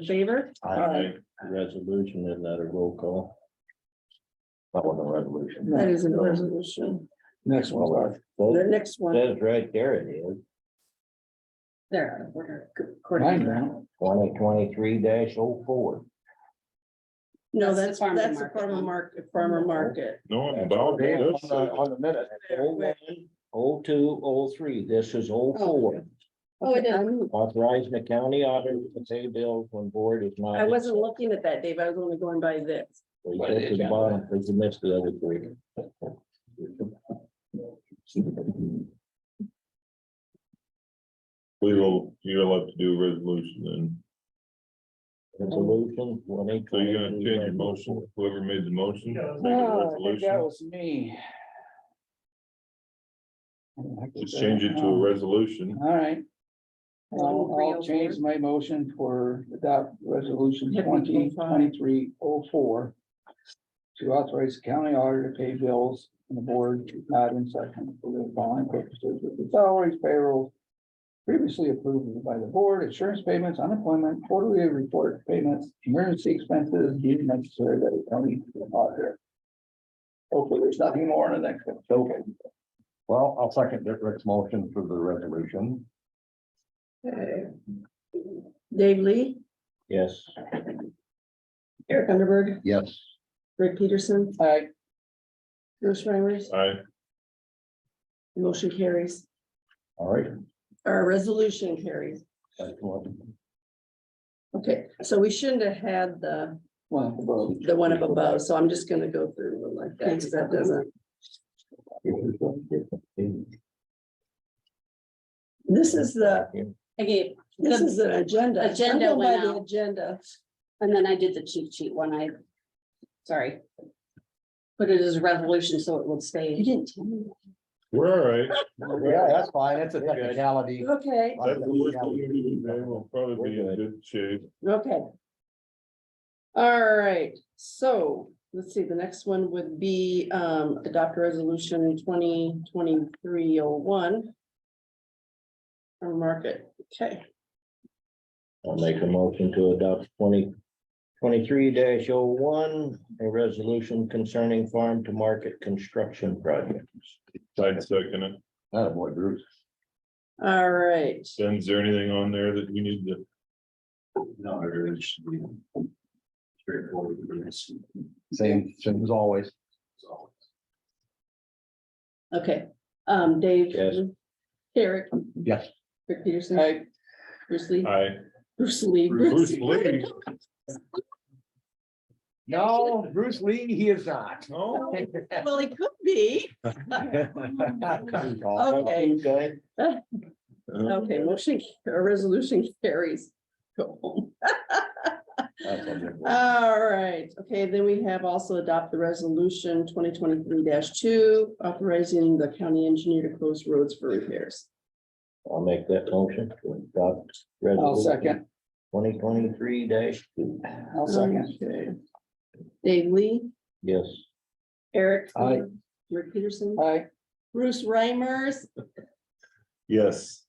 in favor? I, resolution is not a roll call. That wasn't a resolution. That is a resolution. Next one, Laura. The That next one, says right there it is, There. we're Mine recording. now. twenty twenty-three dash oh four. no, that's, That's the farmer that's the market farmer one. market, Oh. farmer market. No, I'm On about this. the on the minute, oh one, oh two, oh three, this is oh four. Oh, it is. I'm- Authorizing the county auditor to pay bills when board is not. I wasn't looking at that, Dave, I was only going by this. Well, you got to the bottom, but you missed the other three. We will, you'll have to do a resolution and Resolution twenty. so you're gonna change your motion, whoever made the motion. make a Oh, I think that resolution. was me. I did Just that change it to a wrong. resolution. All right. I'll, I'll 2304. change my motion for adopt resolution Yeah, twenty 2305. twenty-three oh four. To authorize the county auditor to pay bills and the board is not in session for the following purposes with the salaries payroll. Previously approved by the board, insurance payments, unemployment, quarterly report payments, emergency expenses, deemed necessary that the county auditor. Hopefully, there's nothing more in the next one. Okay. Well, I'll second Rick's motion for the resolution. Dave Lee, Yes. Eric Underberg, Yes. Greg Peterson, All right, Bruce Schreimers, I, motion carries, All right. our resolution carries. Excellent. Okay, so we shouldn't have had the, well, well, the one up above, so I'm just gonna go through them like that, because that doesn't, this is the, I gave, this is an agenda. I'm Agenda going by went the out. Agenda, and then I did the cheat sheet one, I, sorry. Put it as a resolution so it will you stay. didn't tell me. we're all right. Yeah, that's fine. That's a technicality. Okay, That's the worst we've been in. We'll probably be in good shape. okay. All right, so let's see, the next one would be um adopt resolution twenty twenty-three oh one. Or market, okay, I'll make a motion to adopt twenty twenty-three dash oh one, a resolution concerning farm to market construction projects. I'd second it. Not a boy, Bruce. all right. Then is there anything on there that we need to? No, it's. Straightforward. Same, same as always. Okay, um, Dave. Yes. Eric, Yes. Rick Peterson, I, Bruce Lee, I, Bruce Lee. Bruce Lee, No, Bruce Lee, he is not. no, Well, he could be. Okay. Okay. Okay, motion, or resolution carries. Go home. All right, okay, then we have also adopt the resolution twenty twenty-three two, authorizing the county engineer to close roads for repairs. I'll make that motion. to adopt I'll second, Twenty twenty-three dash two. I'll second. Okay. Dave Lee, Yes. Eric. Aye. Rick Peterson, All right, Bruce Reimers, yes,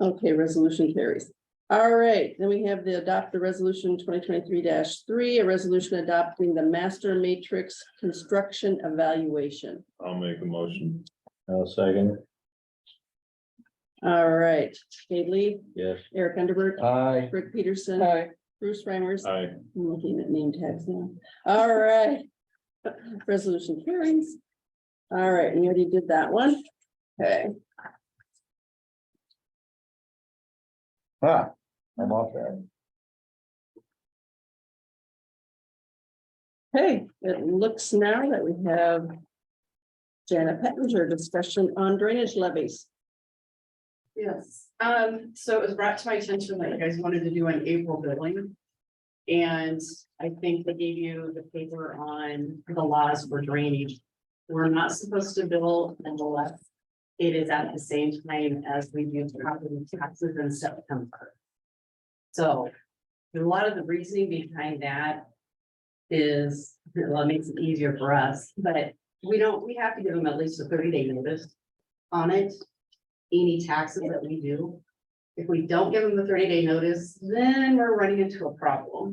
Okay, resolution carries. All right, then we have the adopt the resolution twenty twenty-three three, a resolution adopting the master matrix construction evaluation. I'll make a motion. I'll second. All right, Dave Lee, Yes. Eric Underberg, Aye. Rick all Peterson, right, Bruce Reimers. I, I'm looking at name tags now. All right. Resolution carries. All right, and you already did that one. Okay, Huh, I'm off that. hey, it looks now that we have Janet Pettinger discussion on drainage levies. Yes, um, so it was brought to my attention that you guys wanted to do an April billing. And I think they gave you the paper on the laws for drainage. We're not supposed to bill unless it is at the same time as we do property taxes in September. So a lot of the reasoning behind that is, well, it makes it easier for us, but we don't, we have to give them at least a thirty day notice on it any taxes that we do. If we don't give them the thirty day notice, then we're running into a problem.